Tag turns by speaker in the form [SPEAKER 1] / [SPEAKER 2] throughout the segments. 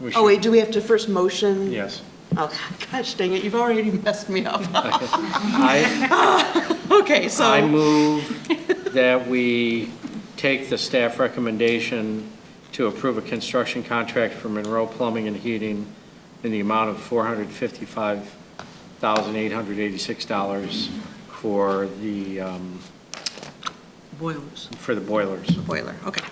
[SPEAKER 1] We
[SPEAKER 2] Oh, wait,
[SPEAKER 1] should,
[SPEAKER 2] do we have to first motion?
[SPEAKER 1] yes.
[SPEAKER 2] Oh, gosh dang it, you've already messed me up.
[SPEAKER 1] I,
[SPEAKER 2] Okay,
[SPEAKER 1] I
[SPEAKER 2] so,
[SPEAKER 1] move that we take the staff recommendation to approve a construction contract for Monroe Plumbing and Heating in the amount of $455,886 for the, um,
[SPEAKER 2] boilers,
[SPEAKER 1] for the boilers.
[SPEAKER 2] boiler, okay.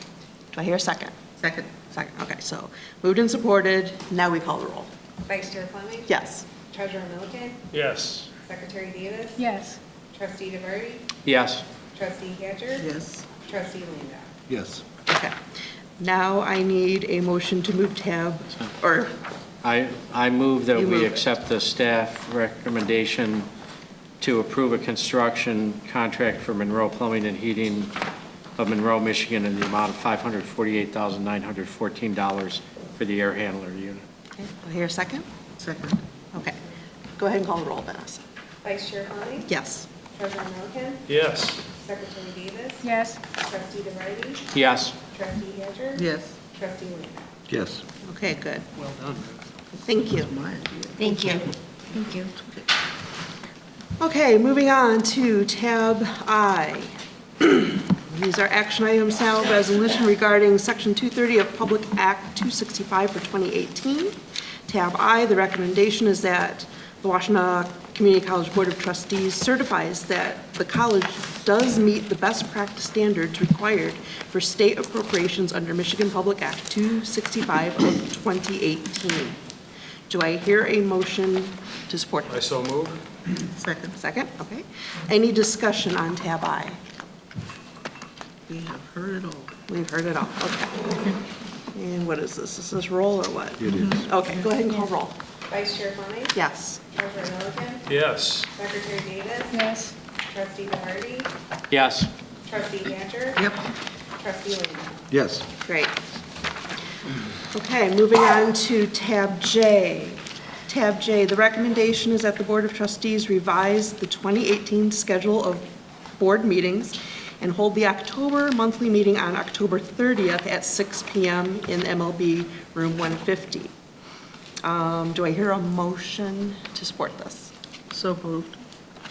[SPEAKER 2] Do I hear a second?
[SPEAKER 3] Second.
[SPEAKER 2] Second, okay, so moved and supported, now we call the roll.
[SPEAKER 4] Vice Chair Fleming?
[SPEAKER 2] Yes.
[SPEAKER 4] Treasurer Milliken?
[SPEAKER 1] Yes.
[SPEAKER 4] Secretary Davis?
[SPEAKER 5] Yes.
[SPEAKER 4] Trustee DeVry?
[SPEAKER 1] Yes.
[SPEAKER 4] Trustee Hatcher?
[SPEAKER 3] Yes.
[SPEAKER 4] Trustee Linda?
[SPEAKER 6] Yes.
[SPEAKER 2] Okay. Now I need a motion to move tab, or,
[SPEAKER 1] I, I move that
[SPEAKER 2] You move
[SPEAKER 1] we
[SPEAKER 2] it.
[SPEAKER 1] accept the staff recommendation to approve a construction contract for Monroe Plumbing and Heating of Monroe, Michigan in the amount of $548,914 for the air handler unit.
[SPEAKER 2] okay, do I hear a second?
[SPEAKER 3] Second.
[SPEAKER 2] Okay. Go ahead and call the roll, Vanessa.
[SPEAKER 4] Vice Chair Fleming?
[SPEAKER 2] Yes.
[SPEAKER 4] Treasurer Milliken?
[SPEAKER 1] Yes.
[SPEAKER 4] Secretary Davis?
[SPEAKER 5] Yes.
[SPEAKER 4] Trustee DeVry?
[SPEAKER 1] Yes.
[SPEAKER 4] Trustee Hatcher?
[SPEAKER 3] Yes.
[SPEAKER 4] Trustee Linda?
[SPEAKER 6] Yes.
[SPEAKER 2] Okay, good.
[SPEAKER 3] Well done.
[SPEAKER 2] Thank you.
[SPEAKER 3] My idea.
[SPEAKER 5] Thank you. Thank you.
[SPEAKER 2] Okay, moving on to tab I. These are action items now, resolution regarding section 230 of Public Act 265 for 2018. Tab I, the recommendation is that the Washtenaw Community College Board of Trustees certifies that the college does meet the best practice standards required for state appropriations under Michigan Public Act 265 of 2018. Do I hear a motion to support this?
[SPEAKER 7] so move.
[SPEAKER 3] Second.
[SPEAKER 2] Second, okay. Any discussion on tab I?
[SPEAKER 3] We have heard it all.
[SPEAKER 2] We've heard it all, okay. And what is this? Is this roll or what?
[SPEAKER 6] It is.
[SPEAKER 2] Okay, go ahead and call roll.
[SPEAKER 4] Vice Chair Fleming?
[SPEAKER 2] Yes.
[SPEAKER 4] Treasurer Milliken?
[SPEAKER 7] Yes.
[SPEAKER 4] Secretary Davis?
[SPEAKER 5] Yes.
[SPEAKER 4] Trustee DeVry?
[SPEAKER 1] Yes.
[SPEAKER 4] Trustee Hatcher?
[SPEAKER 3] Yep.
[SPEAKER 4] Trustee Linda?
[SPEAKER 6] Yes.
[SPEAKER 2] Great. Okay, moving on to tab J. Tab J, the recommendation is that the Board of Trustees revise the 2018 schedule of board meetings and hold the October monthly meeting on October 30th at 6 PM in MLB Room 150. Um, Do I hear a motion to support this?
[SPEAKER 3] So moved.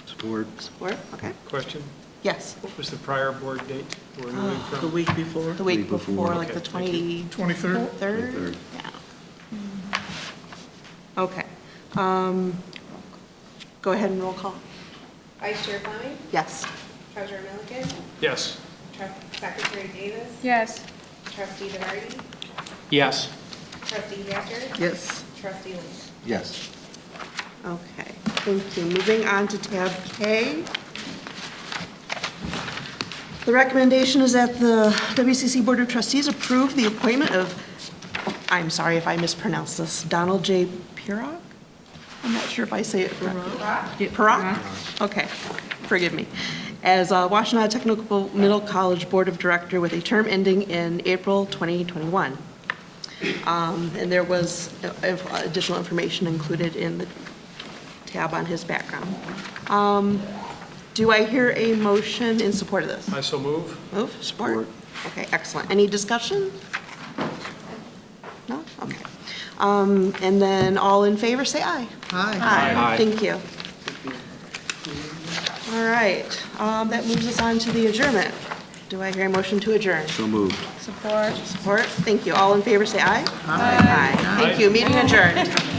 [SPEAKER 6] Support.
[SPEAKER 2] Support, okay.
[SPEAKER 7] Question,
[SPEAKER 2] Yes,
[SPEAKER 7] what was the prior board date we're moving
[SPEAKER 3] Uh, The
[SPEAKER 7] from?
[SPEAKER 3] week before.
[SPEAKER 2] the week
[SPEAKER 6] Week before.
[SPEAKER 2] before, like the 20...
[SPEAKER 7] 23rd?
[SPEAKER 2] 23rd?
[SPEAKER 6] 23rd.
[SPEAKER 2] Yeah. Okay. Um, Go ahead and roll call.
[SPEAKER 4] Vice Chair Fleming?
[SPEAKER 2] Yes.
[SPEAKER 4] Treasurer Milliken?
[SPEAKER 7] Yes.
[SPEAKER 4] Trust- Secretary Davis?
[SPEAKER 5] Yes.
[SPEAKER 4] Trustee DeVry?
[SPEAKER 1] Yes.
[SPEAKER 4] Trustee Hatcher?
[SPEAKER 3] Yes.
[SPEAKER 4] Trustee Linda?
[SPEAKER 6] Yes.
[SPEAKER 2] Okay, thank you. Moving on to tab K. The recommendation is that the WCC Board of Trustees approve the appointment of, I'm sorry if I mispronounce this, Donald J. Pirog? I'm not sure if I say it correctly. Pirog? Okay, forgive me. As uh, Washtenaw Technical Middle College Board of Director with a term ending in April 2021. Um, And there was uh, uh, additional information included in the tab on his background. Um, Do I hear a motion in support of this?
[SPEAKER 7] I so move.
[SPEAKER 2] Move, support?
[SPEAKER 6] Support.
[SPEAKER 2] Okay, excellent. Any discussion? No? Okay. Um, And then all in favor, say aye.
[SPEAKER 3] Hi.
[SPEAKER 2] Aye.
[SPEAKER 1] Aye.
[SPEAKER 2] Thank you. All right, um, that moves us on to the adjournment. Do I hear a motion to adjourn?
[SPEAKER 6] So moved.
[SPEAKER 5] Support.
[SPEAKER 2] Support? Thank you. All in favor, say aye. Aye. Thank you. Meeting adjourned.